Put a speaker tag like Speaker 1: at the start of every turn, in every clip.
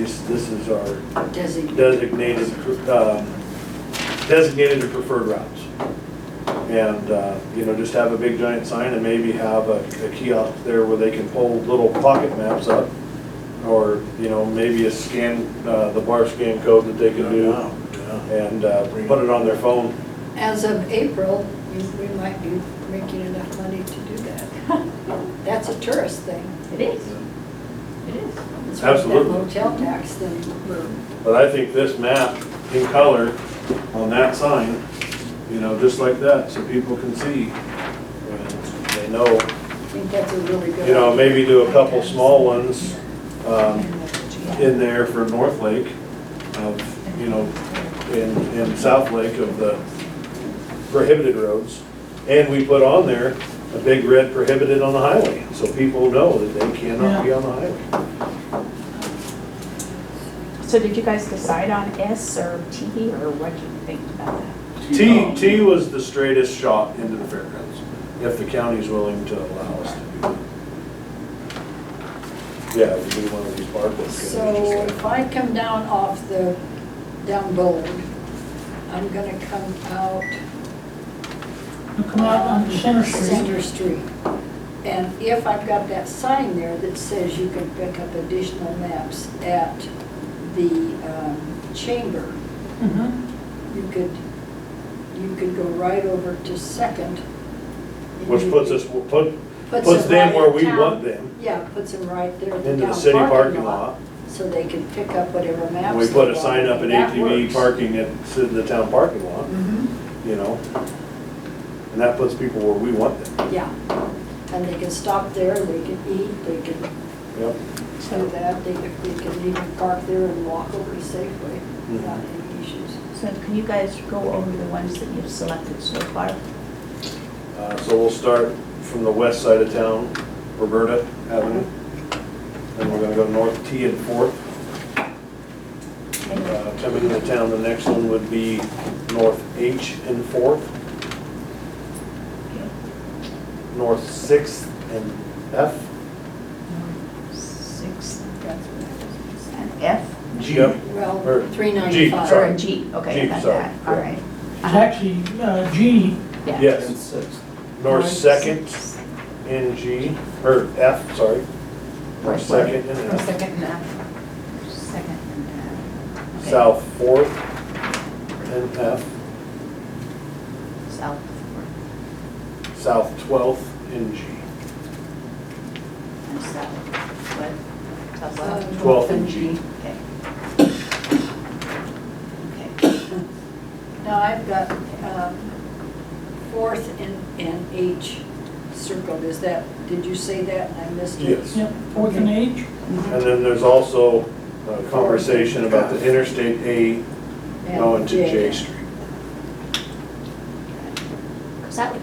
Speaker 1: This, this is our
Speaker 2: Designate.
Speaker 1: designated, um, designated and preferred routes. And, uh, you know, just have a big giant sign and maybe have a a kiosk there where they can pull little pocket maps up. Or, you know, maybe a scan, uh, the bar scan code that they can do and uh, put it on their phone.
Speaker 2: As of April, we- we might be making enough money to do that. That's a tourist thing.
Speaker 3: It is. It is.
Speaker 2: It's worth that
Speaker 1: Absolutely.
Speaker 2: Motel tax thing.
Speaker 1: But I think this map in color on that sign, you know, just like that, so people can see. and They know,
Speaker 2: I think that's a really good.
Speaker 1: you know,
Speaker 2: idea.
Speaker 1: maybe do a couple small ones um, in there for North Lake of, you know, in, in South Lake of the prohibited roads. And we put on there a big red prohibited on the highway, so people know that they cannot be on the highway.
Speaker 4: So did you guys decide on S or T or what do you think about that?
Speaker 1: T, T was the straightest shot into the fairgrounds, if the county's willing to allow us to do that. Yeah, we do one of these bar books.
Speaker 2: So if I come down off the, down Bold, I'm gonna come out.
Speaker 5: Come out on Center Street.
Speaker 2: Center Street. And if I've got that sign there that says you can pick up additional maps at the um, chamber,
Speaker 5: Mhm.
Speaker 2: you could, you could go right over to Second. and
Speaker 1: Which
Speaker 2: you-
Speaker 1: puts us, put,
Speaker 2: Puts
Speaker 1: puts
Speaker 2: it
Speaker 1: them
Speaker 2: right
Speaker 1: where
Speaker 2: in
Speaker 1: we
Speaker 2: town.
Speaker 1: want them,
Speaker 2: Yeah, puts them right there. at
Speaker 1: into the
Speaker 2: down
Speaker 1: city parking lot.
Speaker 2: So they can pick up whatever maps.
Speaker 1: And we
Speaker 2: they
Speaker 1: put a
Speaker 2: want,
Speaker 1: sign up in
Speaker 2: and that
Speaker 1: ATV
Speaker 2: works.
Speaker 1: parking at s- the town parking lot,
Speaker 2: Mhm,
Speaker 1: you know? And that puts people where we want them,
Speaker 2: Yeah, and they can stop there, they can eat, they can
Speaker 1: yep.
Speaker 2: So that they, they can even park there and walk over to Safeway without any issues.
Speaker 4: So can you guys go over the ones that you've selected so far?
Speaker 1: Uh, So we'll start from the west side of town, Roberta Avenue. And we're gonna go north T and Fourth. Uh, Coming into town, the next one would be north H and Fourth. North Sixth and F.
Speaker 4: Six, that's what I was, and F?
Speaker 1: G. Yep. Or
Speaker 2: Well, three
Speaker 1: Jeep,
Speaker 2: ninety-five.
Speaker 1: sorry.
Speaker 4: Or a G, okay,
Speaker 1: G,
Speaker 4: I got
Speaker 1: sorry,
Speaker 4: that, all
Speaker 1: yeah.
Speaker 4: right.
Speaker 5: It's actually uh, G,
Speaker 4: Yeah.
Speaker 1: Yes, north Second and G, or F, sorry. North
Speaker 4: Right.
Speaker 1: Second and F.
Speaker 4: Second and F. Second and F. Okay.
Speaker 1: South Fourth and F.
Speaker 4: South.
Speaker 1: South Twelfth and G.
Speaker 4: And south, what? South
Speaker 2: Um,
Speaker 4: left?
Speaker 1: Twelfth and G.
Speaker 4: Okay. Okay.
Speaker 2: Now, I've got, um, Fourth and, and H circled, is that, did you say that and I missed it?
Speaker 1: Yes.
Speaker 5: yep, fourth and H.
Speaker 4: Mm-hmm.
Speaker 1: And then there's also a conversation about the Interstate A
Speaker 2: And
Speaker 1: going Oh, to J Street.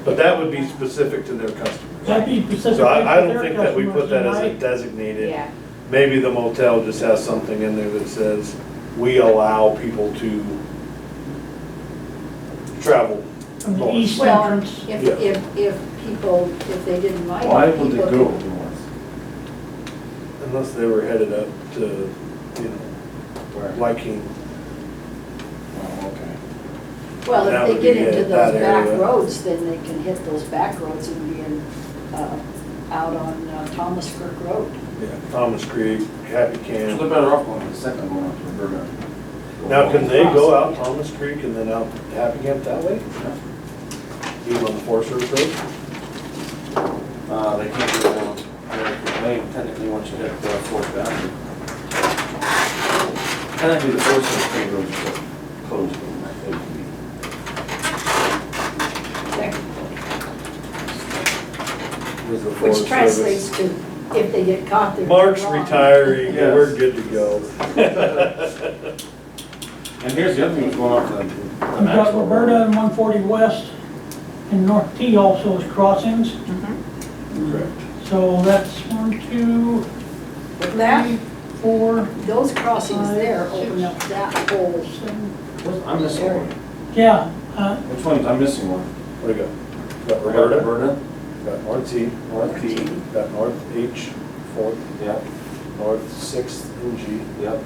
Speaker 1: But that would be specific to their
Speaker 5: That'd
Speaker 1: customers.
Speaker 5: be specific.
Speaker 1: So I, I
Speaker 5: to
Speaker 1: don't
Speaker 5: their
Speaker 1: think that we put
Speaker 5: customers,
Speaker 1: that as a
Speaker 5: right?
Speaker 1: designated.
Speaker 4: Yeah,
Speaker 1: Maybe the motel just has something in there that says, we allow people to travel.
Speaker 5: From the
Speaker 1: north."
Speaker 5: east
Speaker 2: Well,
Speaker 5: entrance.
Speaker 2: if,
Speaker 1: Yeah.
Speaker 2: if, if people, if they didn't like. it,
Speaker 6: Why would they
Speaker 2: people
Speaker 6: go
Speaker 2: could-
Speaker 6: north?
Speaker 1: Unless they were headed up to, you know, liking,
Speaker 6: Oh, okay.
Speaker 2: Well,
Speaker 1: That
Speaker 2: if
Speaker 1: would
Speaker 2: they
Speaker 1: be
Speaker 2: get into
Speaker 1: it,
Speaker 2: those
Speaker 1: that
Speaker 2: back
Speaker 1: area.
Speaker 2: roads, then they can hit those back roads and be in, uh, out on uh, Thomas Kirk Road.
Speaker 1: Thomas Creek, Happy
Speaker 6: So
Speaker 1: Camp.
Speaker 6: they're better off going to the second one, up to Roberta.
Speaker 1: Now, can they go out Thomas Creek and then out Happy Camp that way? Even on the Forest Service Road?
Speaker 6: Uh, they can't go down American Lane technically once you uh, hit the fourth boundary. Technically, the fourth and fifth roads are closed in that ATV.
Speaker 1: There's the Forest Service.
Speaker 2: Which translates to, if they get caught, they're.
Speaker 1: Mark's
Speaker 2: wrong.
Speaker 1: retiring, and we're
Speaker 6: Yes.
Speaker 1: good to go.
Speaker 6: And here's the other thing that's going on with the the
Speaker 5: We've got
Speaker 6: Maxwell Road.
Speaker 5: Roberta and 140 West, and North T also is crossings. So that's one, two,
Speaker 2: But
Speaker 5: three,
Speaker 2: That,
Speaker 5: four,
Speaker 2: those
Speaker 4: Uh,
Speaker 2: crossings there open up that whole,
Speaker 5: seven.
Speaker 6: What's- I'm missing one.
Speaker 5: Yeah, uh,
Speaker 6: Which one's, I'm missing one.
Speaker 1: Where you go? Got
Speaker 6: I got
Speaker 1: Roberta,
Speaker 6: Roberta,
Speaker 1: got North T,
Speaker 6: North T,
Speaker 1: got North H, Fourth,
Speaker 6: yep,
Speaker 1: North Sixth and G.
Speaker 6: yep.